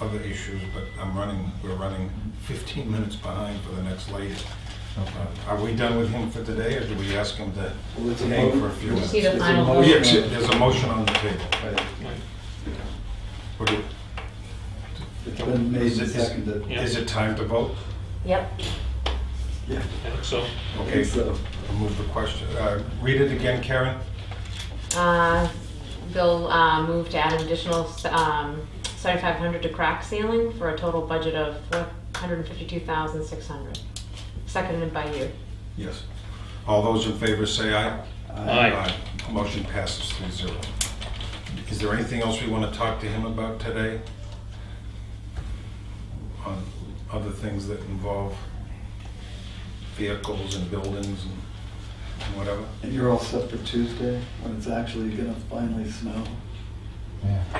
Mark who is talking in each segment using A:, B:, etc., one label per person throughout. A: other issues, but I'm running, we're running 15 minutes behind for the next lady. Uh, Are we done with him for today, or do we ask him to
B: Well, it's a
A: hang
B: vote.
A: for a few
B: It's
A: minutes?
B: a
A: Oh, Yeah,
C: Need a final vote.
B: motion.
A: There's a motion on the table.
B: Right.
A: What do-
B: It's been made
A: Is
B: and
A: it-
B: seconded.
A: Is it time to vote?
C: Yep.
B: Yeah,
D: I think so.
B: I
A: Okay,
B: think so.
A: remove the question. Uh, Read it again, Karen?
C: Uh, Bill uh, moved to add an additional um, 7,500 to crack ceiling for a total budget of 152,600. Seconded by you.
A: Yes. All those in favor say aye.
B: Uh,
D: Aye.
A: Aye. Motion passes three zero. Is there anything else we want to talk to him about today? On other things that involve vehicles and buildings and whatever?
B: And you're all set for Tuesday, when it's actually gonna finally snow?
E: Yeah. I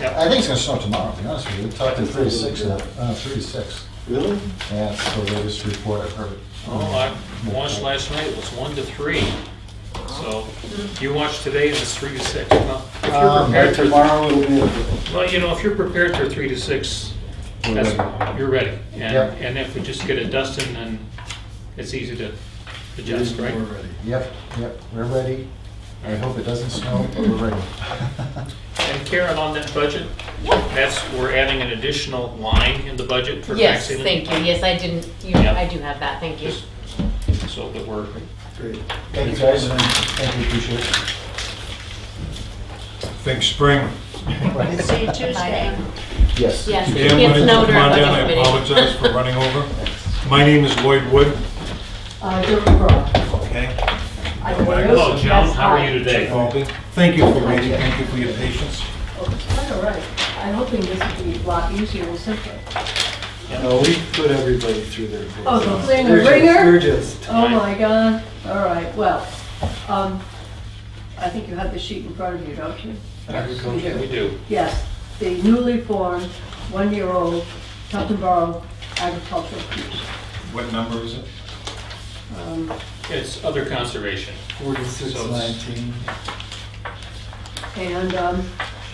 D: Yep.
E: think it's gonna snow tomorrow, to be honest with you. We talked to three to six, uh, uh, three to six.
B: Really?
E: Yeah, it's the latest report I've heard.
D: Well, Oh, I watched last night, it was one to three. So you watched today and it's three to six. Well, if you're
E: Um,
D: prepared for-
B: Tomorrow it'll be a,
D: Well, you know, if you're prepared for three to six,
E: We're
D: that's,
E: ready.
D: you're ready. And,
E: Yep.
D: and if we just get it dusting, then it's easy to adjust,
B: we're
D: right?
B: ready.
E: Yep, yep, we're ready. I hope it doesn't snow, but we're ready.
D: And Karen, on that budget, that's, we're adding an additional line in the budget for
C: Yes,
D: vaccine.
C: thank you. Yes, I didn't, you,
D: Yep.
C: I do have that, thank you.
D: Just So that we're,
B: Great.
E: Thank you, guys. Thank you, appreciate it.
A: Think spring.
E: Right.
F: See you Tuesday.
E: Yes.
C: Yes, it
A: Dan, why
C: gets
A: don't you
C: snowed
A: come on
C: during budget
A: down? I
C: committee.
A: apologize for running over. My name is Lloyd Wood,
F: Uh, Dirk Brock.
A: okay?
F: I can
A: Hello,
F: listen.
D: hello, Joan,
F: That's
D: how are
F: fine.
D: you today?
A: Thank you for waiting, thank you for your patience.
F: Quite all right. I'm hoping this will be a lot easier and simpler.
B: No, we put everybody through their.
F: Oh, the
B: paces.
F: ringer,
B: We're just-
F: ringer?
B: We're just,
F: Oh, my God. All right, well, um, I think you have the sheet in front of you, don't you?
D: agriculture, we do.
F: Yes, the newly formed, one-year-old Tufton Borough Agricultural Commission.
A: What number is it?
F: Um,
D: It's other conservation.
B: forty-six nineteen.
F: And um,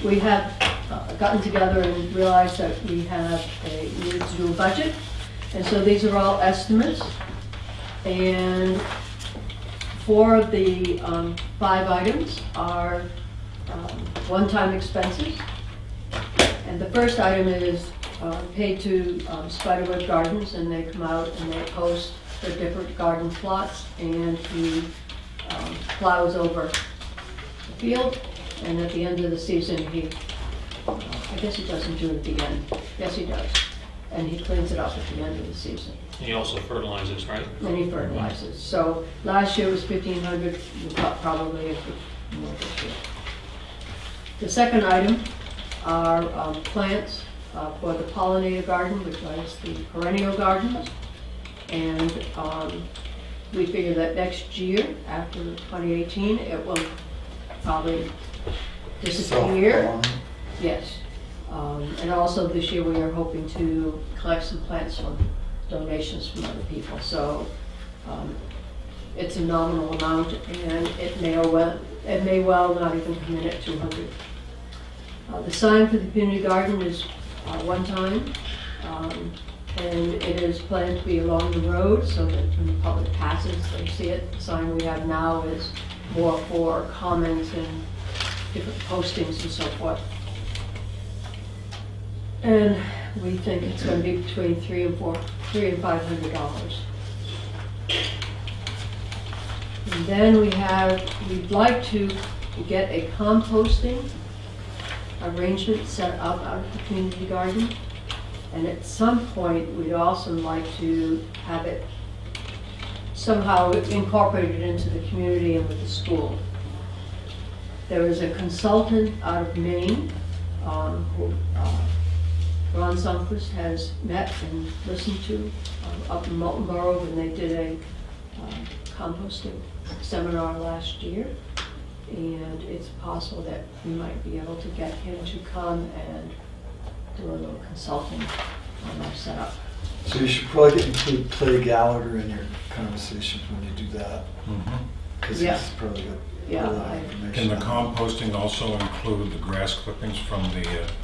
F: we have uh, gotten together and realized that we have a, we need to do a budget. And so these are all estimates. And four of the um, five items are um, one-time expenses. And the first item is uh, paid to um, Spiderweb Gardens, and they come out and they post their different garden plots and he um, plows over the field, and at the end of the season, he, I guess he doesn't do it at the end, yes, he does. And he cleans it up at the end of the season,
D: And he also fertilizes, right?
F: and he fertilizes. So last year was fifteen hundred, probably a bit more this year. The second item are um, plants uh, for the pollinator garden, which is the perennial gardens. And um, we figure that next year, after 2018, it will probably disappear. Yes. Um, And also this year, we are hoping to collect some plants from donations from other people. So um, it's a nominal amount and it may or well, it may well not even come in at 200. Uh, The sign for the community garden is uh, one time. um, And it is planned to be along the road so that when the public passes, they see it. The sign we have now is more for comments and different postings and so forth. And we think it's gonna be between three and four, three and five hundred dollars. And then we have, we'd like to get a composting arrangement set up out of the community garden. And at some point, we'd also like to have it somehow incorporated into the community and with the school. There is a consultant out of Maine, um, who, uh, Ron Sunquist has met and listened to um, up in Molten Borough when they did a um, composting seminar last year. And it's possible that we might be able to get him to come and do a little consulting on our setup.
B: So you should probably include Clay Gallagher in your conversations when you do that,
A: Mhm.
B: because
F: Yeah.
B: he's probably got a
F: Yeah,
B: lot
F: I-
B: of information.
A: Can the
B: on that.
A: composting also include the grass clippings from the uh,